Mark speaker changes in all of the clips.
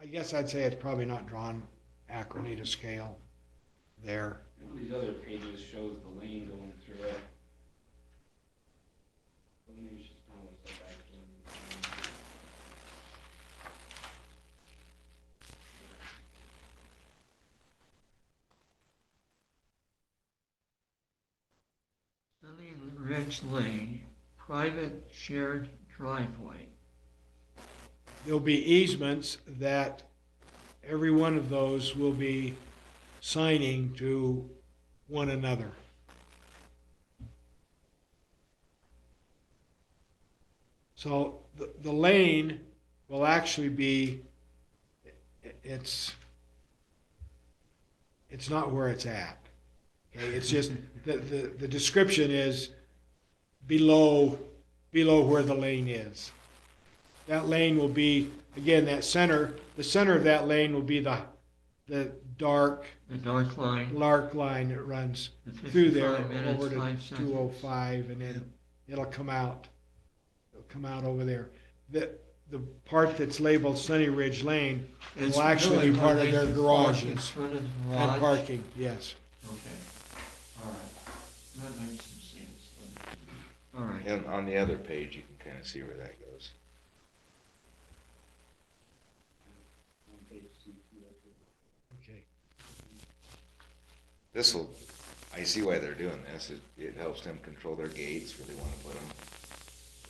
Speaker 1: I guess I'd say it's probably not drawn accurately to scale there.
Speaker 2: One of these other pages shows the lane going through it. Maybe it's just kind of like that back one.
Speaker 3: Sunny Ridge Lane, private shared driveway.
Speaker 1: There'll be easements that every one of those will be signing to one another. So the, the lane will actually be, i- it's, it's not where it's at. Okay, it's just, the, the, the description is below, below where the lane is. That lane will be, again, that center, the center of that lane will be the, the dark,
Speaker 3: The dark line,
Speaker 1: lark line that runs
Speaker 3: the
Speaker 1: through there
Speaker 3: fifty-five minutes,
Speaker 1: over to
Speaker 3: five seconds.
Speaker 1: 205, and then it'll come out, it'll come out over there. The, the part that's labeled Sunny Ridge Lane
Speaker 3: It's
Speaker 1: will actually be
Speaker 3: really
Speaker 1: part of
Speaker 3: where
Speaker 1: their
Speaker 3: they park In
Speaker 1: garages
Speaker 3: front of the
Speaker 1: and
Speaker 3: garage.
Speaker 1: parking, yes.
Speaker 3: Okay, all right. That makes some sense. All right,
Speaker 4: And on the other page, you can kind of see where that goes.
Speaker 2: On page two, two, oh, two.
Speaker 1: Okay.
Speaker 4: This'll, I see why they're doing this. It, it helps them control their gates where they want to put them.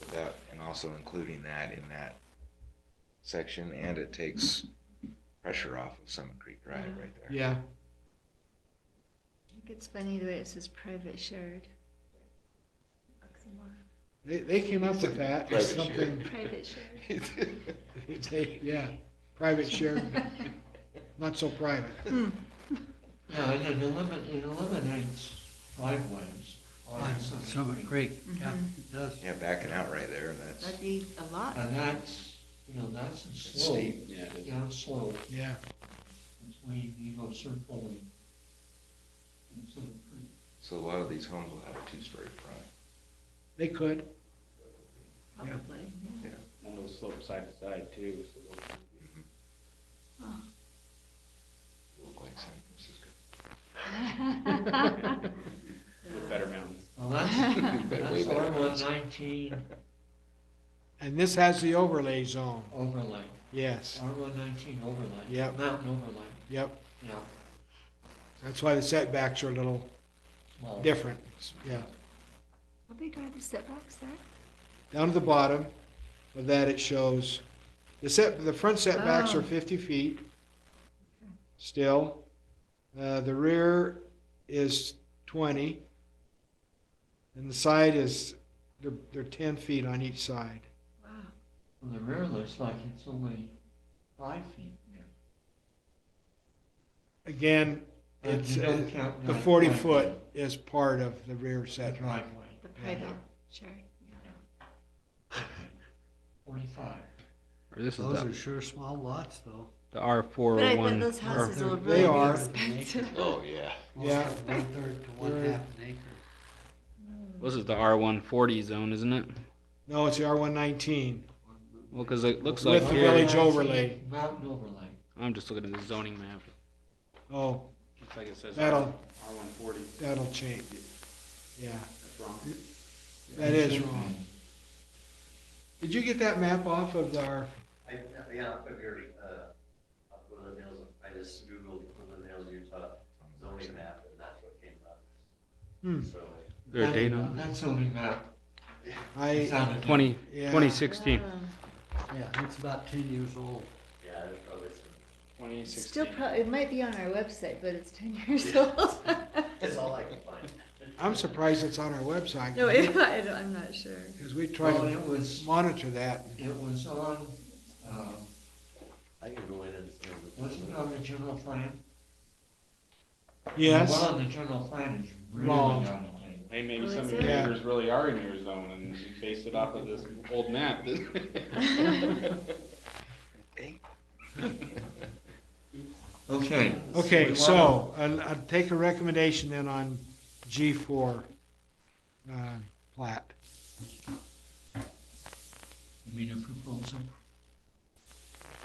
Speaker 4: Without, and also including that in that section, and it takes pressure off of Summit Creek Drive right there.
Speaker 1: Yeah,
Speaker 5: I think it's funny the way it says private shared. Oxymoron.
Speaker 1: they, they came up with that, as
Speaker 4: Private share.
Speaker 1: something,
Speaker 5: Private shared.
Speaker 1: they, yeah, private share, not so private.
Speaker 3: yeah, and it eliminates, it eliminates driveways. on Summit Creek.
Speaker 5: yeah,
Speaker 6: does.
Speaker 4: Yeah, backing out right there, and that's,
Speaker 5: That'd be a lot.
Speaker 3: Mhm. And that's, you know, that's a slope,
Speaker 4: steep.
Speaker 2: Yeah, it is.
Speaker 3: down slope,
Speaker 1: Yeah,
Speaker 3: between Evo Circle and and Summit Creek.
Speaker 4: so a lot of these homes will have a two-story front.
Speaker 1: they could,
Speaker 5: Probably. yeah.
Speaker 2: And those slope side to side too, so those can be-
Speaker 5: Oh.
Speaker 4: Look like San Francisco.
Speaker 2: with better mountains.
Speaker 3: Well, that's,
Speaker 4: Better- way
Speaker 3: that's
Speaker 4: better
Speaker 3: R one
Speaker 4: roads.
Speaker 3: nineteen
Speaker 1: and this has the overlay zone,
Speaker 3: overlay,
Speaker 1: yes,
Speaker 3: R one nineteen overlay.
Speaker 1: Yep.
Speaker 3: Mountain overlay,
Speaker 1: yep.
Speaker 3: yeah.
Speaker 1: That's why the setbacks are a little
Speaker 3: well,
Speaker 1: different, yeah.
Speaker 5: How big are the setbacks there?
Speaker 1: Down to the bottom of that, it shows, the set, the front setbacks are
Speaker 5: Oh.
Speaker 1: 50 feet still. Uh, The rear is 20. And the side is, they're, they're 10 feet on each side.
Speaker 5: Wow.
Speaker 3: The rear looks like it's only five feet.
Speaker 1: Again,
Speaker 3: And
Speaker 1: it's,
Speaker 3: you don't
Speaker 1: uh,
Speaker 3: count
Speaker 1: the
Speaker 3: that
Speaker 1: 40
Speaker 3: driveway,
Speaker 1: foot is part of the rear
Speaker 3: The
Speaker 1: setback.
Speaker 3: driveway,
Speaker 5: The private shared.
Speaker 3: forty-five.
Speaker 7: This is
Speaker 6: Those
Speaker 7: the,
Speaker 6: are sure small lots, though.
Speaker 7: the R four
Speaker 5: But I
Speaker 7: oh
Speaker 5: bet
Speaker 7: one.
Speaker 5: those houses
Speaker 6: they're-
Speaker 5: will
Speaker 6: they
Speaker 5: really
Speaker 1: are.
Speaker 5: be expensive.
Speaker 4: Oh, yeah.
Speaker 6: Most
Speaker 1: Yeah.
Speaker 6: have One-third to one-half an acre.
Speaker 7: This is the R one forty zone, isn't it?
Speaker 1: No, it's the R119.
Speaker 7: Well, because it looks
Speaker 1: With
Speaker 7: like
Speaker 1: the
Speaker 7: here-
Speaker 1: village overlay.
Speaker 3: Mountain overlay.
Speaker 7: I'm just looking at the zoning map.
Speaker 1: Oh,
Speaker 7: Looks like it says.
Speaker 1: that'll,
Speaker 2: R one forty,
Speaker 1: that'll change. Yeah,
Speaker 2: that's wrong.
Speaker 1: that is wrong. Did you get that map off of our,
Speaker 8: I, yeah, I figured, uh, up one of the nails, I just Googled one of the nails Utah zoning map and that's what came up.
Speaker 1: hmm,
Speaker 8: So,
Speaker 7: Their
Speaker 3: That-
Speaker 7: date on
Speaker 3: That's only map.
Speaker 1: I,
Speaker 7: it. Twenty,
Speaker 1: yeah.
Speaker 7: twenty sixteen.
Speaker 5: Wow.
Speaker 6: Yeah, it's about ten years old.
Speaker 8: yeah, there's probably some,
Speaker 2: Twenty
Speaker 5: It's Still,
Speaker 2: sixteen.
Speaker 5: pro- it might be on our website, but it's ten years old.
Speaker 8: that's all I can find.
Speaker 1: I'm surprised it's on our website.
Speaker 5: No, it, I don't, I'm not sure.
Speaker 1: Because we try
Speaker 3: Well,
Speaker 1: to
Speaker 3: it was,
Speaker 1: monitor that.
Speaker 3: it was on, um,
Speaker 8: I can go in and. see what it's-
Speaker 3: wasn't it on the general plan? The
Speaker 1: Yes,
Speaker 3: one on the general plan is really
Speaker 1: Wrong.
Speaker 3: out of date.
Speaker 2: Hey, maybe
Speaker 5: Well,
Speaker 2: some of
Speaker 5: it's
Speaker 2: your
Speaker 5: in-
Speaker 1: Yeah.
Speaker 2: neighbors really are in your zone and you based it off of this old map.
Speaker 3: Okay.
Speaker 1: okay,
Speaker 3: We
Speaker 1: so I'll, I'll take a recommendation then on G4 uh, plat.
Speaker 3: You mean a proposal?